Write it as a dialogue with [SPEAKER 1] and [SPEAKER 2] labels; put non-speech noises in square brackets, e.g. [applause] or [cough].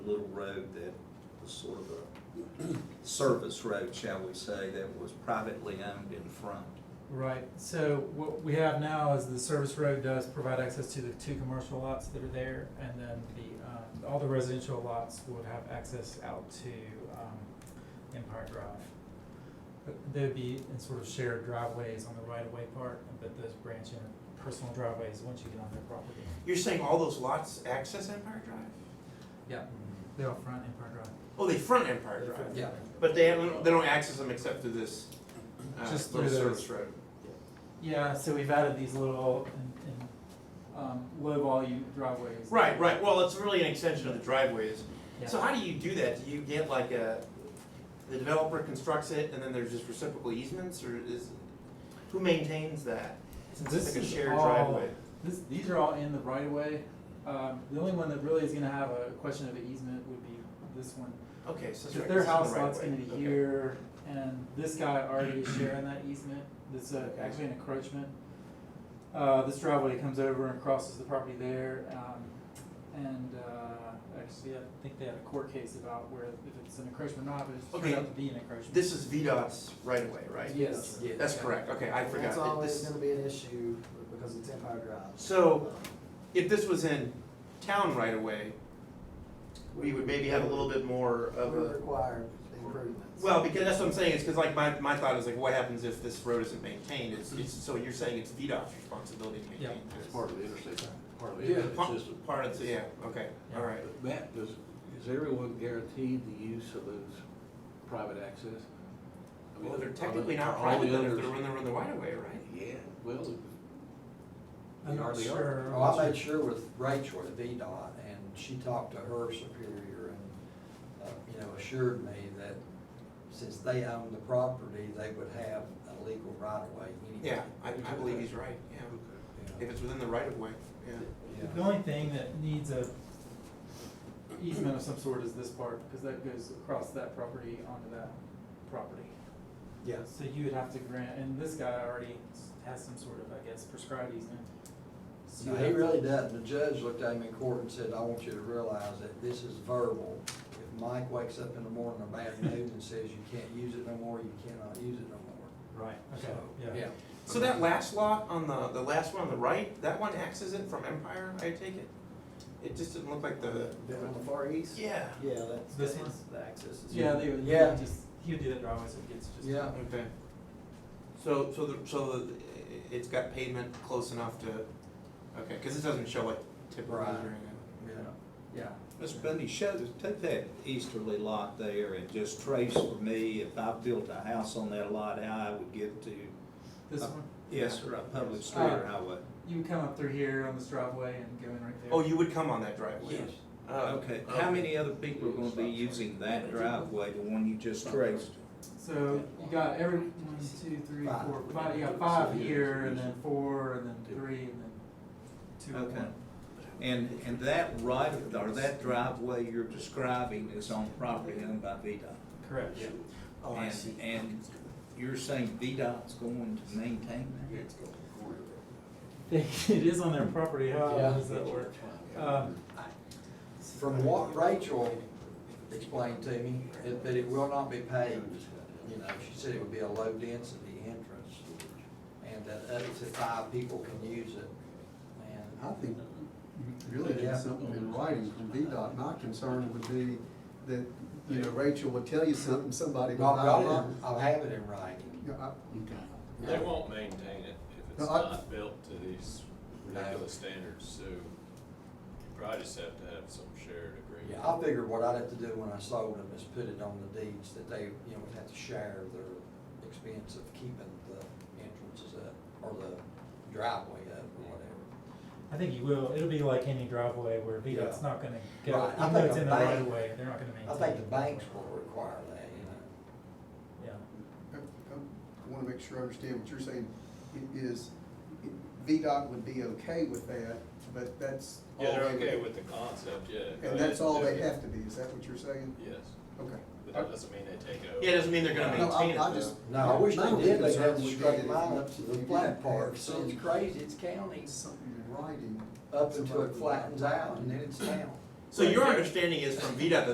[SPEAKER 1] little road that was sort of a service road, shall we say, that was privately owned in front.
[SPEAKER 2] Right, so what we have now is the service road does provide access to the two commercial lots that are there, and then the, um, all the residential lots would have access out to, um, Empire Drive. But They'd be in sort of shared driveways on the right-of-way part, but those branch in personal driveways once you get on their property.
[SPEAKER 3] You're saying all those lots access Empire Drive?
[SPEAKER 2] Yeah, they all front Empire Drive.
[SPEAKER 3] Oh, they front Empire Drive.
[SPEAKER 2] Yeah.
[SPEAKER 3] But they haven't, they don't access them except through this, uh,
[SPEAKER 2] Just
[SPEAKER 3] little
[SPEAKER 2] through those.
[SPEAKER 3] service road.
[SPEAKER 2] Yeah, so we've added these little, and, and, um, low-volume driveways.
[SPEAKER 3] Right, right, well, it's really an extension of the driveways.
[SPEAKER 2] Yeah.
[SPEAKER 3] So how do you do that? Do you get like a, the developer constructs it and then there's just reciprocal easements or is, who maintains that?
[SPEAKER 2] Since
[SPEAKER 3] It's
[SPEAKER 2] this
[SPEAKER 3] like a
[SPEAKER 2] is
[SPEAKER 3] shared
[SPEAKER 2] all-
[SPEAKER 3] driveway.
[SPEAKER 2] This, these are all in the right of way. Um, the only one that really is gonna have a question of an easement would be this one.
[SPEAKER 3] Okay, so that's
[SPEAKER 2] If
[SPEAKER 3] right,
[SPEAKER 2] their
[SPEAKER 3] this is the
[SPEAKER 2] house
[SPEAKER 3] right
[SPEAKER 2] lot's
[SPEAKER 3] way.
[SPEAKER 2] gonna be
[SPEAKER 3] Okay.
[SPEAKER 2] here, and this guy already
[SPEAKER 3] [clears throat]
[SPEAKER 2] is sharing that easement, that's uh,
[SPEAKER 3] Okay.
[SPEAKER 2] actually an encroachment. Uh, this driveway comes over and crosses the property there, um, and, uh, actually, I think they had a court case about where if it's an encroachment or not, but it
[SPEAKER 3] Okay.
[SPEAKER 2] turned out to be an encroachment.
[SPEAKER 3] This is VDOT's right away, right?
[SPEAKER 4] Yes.
[SPEAKER 5] Yeah.
[SPEAKER 3] That's correct, okay, I forgot.
[SPEAKER 4] It's
[SPEAKER 3] It-
[SPEAKER 4] always
[SPEAKER 3] this-
[SPEAKER 4] gonna be an issue because it's Empire Drive.
[SPEAKER 3] So,
[SPEAKER 4] Um,
[SPEAKER 3] if this was in town right away, we would maybe have a little bit more of
[SPEAKER 4] We're
[SPEAKER 3] a.
[SPEAKER 4] required improvements.
[SPEAKER 3] uh, Well, because that's what I'm saying, is because like my, my thought is like, what happens if this road isn't maintained? It's, it's, so you're saying it's VDOT's responsibility to maintain
[SPEAKER 2] Yeah.
[SPEAKER 3] this?
[SPEAKER 5] It's part of the interstate, part of the
[SPEAKER 6] Yeah.
[SPEAKER 3] Part-
[SPEAKER 5] interstate system.
[SPEAKER 3] Part of, yeah, okay, all right.
[SPEAKER 5] But Matt, does, is everyone guaranteed the use of those private access? I mean,
[SPEAKER 3] Well, they're
[SPEAKER 5] are the-
[SPEAKER 3] technically
[SPEAKER 5] are
[SPEAKER 3] not
[SPEAKER 5] the
[SPEAKER 3] private then if
[SPEAKER 5] others-
[SPEAKER 3] they're in the, in the right of way, right?
[SPEAKER 5] Yeah, well,
[SPEAKER 2] I'm
[SPEAKER 5] they
[SPEAKER 2] not
[SPEAKER 5] are, they are.
[SPEAKER 2] sure.
[SPEAKER 6] Well, Oh, I made sure with Rachel at VDOT, and she talked to her superior and, uh, you know, assured me that since they own the property, they would have a legal right of way anyway.
[SPEAKER 3] Yeah, I, I believe he's right, yeah.
[SPEAKER 6] Yeah,
[SPEAKER 3] If it's within the right of way, yeah.
[SPEAKER 2] The
[SPEAKER 6] yeah.
[SPEAKER 2] only thing that needs a easement of some sort is this part, because that goes across that property onto that property.
[SPEAKER 6] Yes,
[SPEAKER 2] So you would have to grant, and this guy already has some sort of, I guess, prescribed easement. So
[SPEAKER 6] No,
[SPEAKER 2] you
[SPEAKER 6] he
[SPEAKER 2] have-
[SPEAKER 6] really doesn't. The judge looked at him in court and said, I want you to realize that this is verbal. If Mike wakes up in the morning in a bad mood and says you can't use it no more, you cannot use it no more.
[SPEAKER 2] Right, okay,
[SPEAKER 6] So,
[SPEAKER 2] yeah.
[SPEAKER 3] So that last lot on the, the last one on the right, that one axes it from Empire, I take it? It just didn't look like the,
[SPEAKER 4] The- On the far east?
[SPEAKER 3] yeah,
[SPEAKER 4] Yeah, that's,
[SPEAKER 2] This
[SPEAKER 4] that's
[SPEAKER 2] one?
[SPEAKER 4] the access is.
[SPEAKER 2] Yeah, they would, he
[SPEAKER 6] Yeah.
[SPEAKER 2] would just, he would do that driveway, so it gets just.
[SPEAKER 6] Yeah,
[SPEAKER 3] okay. So, so the, so the, it's got pavement close enough to, okay, cause it doesn't show like typical
[SPEAKER 6] Right.
[SPEAKER 3] rendering.
[SPEAKER 6] yeah, yeah.
[SPEAKER 1] Ms. Bundy, show, take that easterly lot there and just trace for me, if I built a house on that lot, how I would get to,
[SPEAKER 2] This
[SPEAKER 1] Uh,
[SPEAKER 2] one,
[SPEAKER 1] yes, or a public street or highway.
[SPEAKER 2] you would come up through here on this driveway and go in right there.
[SPEAKER 3] Oh, you would come on that driveway?
[SPEAKER 2] Yes.
[SPEAKER 3] Oh,
[SPEAKER 1] Okay, how many other people are gonna be using that driveway, the one you just traced?
[SPEAKER 2] So you got every, one, two, three,
[SPEAKER 6] Five.
[SPEAKER 2] four, five, you got
[SPEAKER 5] So
[SPEAKER 2] five
[SPEAKER 5] here's-
[SPEAKER 2] here, and then
[SPEAKER 5] here's-
[SPEAKER 2] four, and then three, and then two, and
[SPEAKER 1] Okay.
[SPEAKER 2] one.
[SPEAKER 1] And, and that right, or that driveway you're describing is on property owned by VDOT.
[SPEAKER 2] Correct.
[SPEAKER 3] Oh, I
[SPEAKER 1] And-
[SPEAKER 3] see.
[SPEAKER 1] and- You're saying VDOT's going to maintain that?
[SPEAKER 2] [laughs] It is on their property, how
[SPEAKER 6] Yeah.
[SPEAKER 2] does that work?
[SPEAKER 3] Uh,
[SPEAKER 2] Um,
[SPEAKER 6] From what Rachel explained to me, it- that it will not be paved. You know, she said it would be a low density entrance and that up to five people can use it.
[SPEAKER 7] I
[SPEAKER 6] And
[SPEAKER 7] think really
[SPEAKER 6] Yeah.
[SPEAKER 7] get something in writing from VDOT. My concern would be that, you know, Rachel would tell you something, somebody
[SPEAKER 6] I've
[SPEAKER 7] would
[SPEAKER 6] got
[SPEAKER 7] not.
[SPEAKER 6] it,
[SPEAKER 7] like
[SPEAKER 6] in- I'll have it in writing.
[SPEAKER 7] it. Yeah, I-
[SPEAKER 8] They won't maintain it if
[SPEAKER 7] No,
[SPEAKER 8] it's
[SPEAKER 7] I-
[SPEAKER 8] not built to these ridiculous standards, so you probably just have to have some shared
[SPEAKER 6] Yeah,
[SPEAKER 8] agreement.
[SPEAKER 6] I figured what I'd have to do when I sold them is put it on the deeds that they, you know, would have to share their expense of keeping the entrances up or the driveway up or whatever.
[SPEAKER 2] I think you will, it'll be like any driveway where VDOT's
[SPEAKER 6] Yeah.
[SPEAKER 2] not gonna go,
[SPEAKER 6] Right. I
[SPEAKER 2] even though
[SPEAKER 6] think
[SPEAKER 2] it's
[SPEAKER 6] a
[SPEAKER 2] in the right
[SPEAKER 6] bank-
[SPEAKER 2] of way, they're not gonna maintain.
[SPEAKER 6] I think the
[SPEAKER 2] it.
[SPEAKER 6] banks will require that, you know.
[SPEAKER 2] Yeah.
[SPEAKER 7] I I wanna make sure I understand what you're saying. It is, it- VDOT would be okay with that, but that's all
[SPEAKER 8] Yeah,
[SPEAKER 7] they
[SPEAKER 8] they're
[SPEAKER 7] would.
[SPEAKER 8] okay with the concept, yeah. go
[SPEAKER 7] And
[SPEAKER 8] ahead
[SPEAKER 7] that's all
[SPEAKER 8] do
[SPEAKER 7] they
[SPEAKER 8] it.
[SPEAKER 7] have to be, is that what you're saying?
[SPEAKER 8] Yes,
[SPEAKER 7] Okay.
[SPEAKER 8] but that doesn't mean they take it over.
[SPEAKER 3] Yeah, it doesn't mean they're gonna
[SPEAKER 7] No, I,
[SPEAKER 3] maintain it
[SPEAKER 7] I
[SPEAKER 3] though.
[SPEAKER 7] just.
[SPEAKER 6] No, I wish
[SPEAKER 7] my
[SPEAKER 6] they
[SPEAKER 7] only
[SPEAKER 6] did, they
[SPEAKER 7] concern
[SPEAKER 6] have to
[SPEAKER 7] would be that
[SPEAKER 6] straight
[SPEAKER 7] if
[SPEAKER 6] mine
[SPEAKER 7] you-
[SPEAKER 6] up to
[SPEAKER 7] you
[SPEAKER 6] the
[SPEAKER 7] didn't
[SPEAKER 6] flat
[SPEAKER 7] have
[SPEAKER 6] part, so
[SPEAKER 7] some-
[SPEAKER 6] it's crazy, it's county,
[SPEAKER 7] Something in writing.
[SPEAKER 6] up until it flattens out and then it's town.
[SPEAKER 3] So your understanding is from VDOT that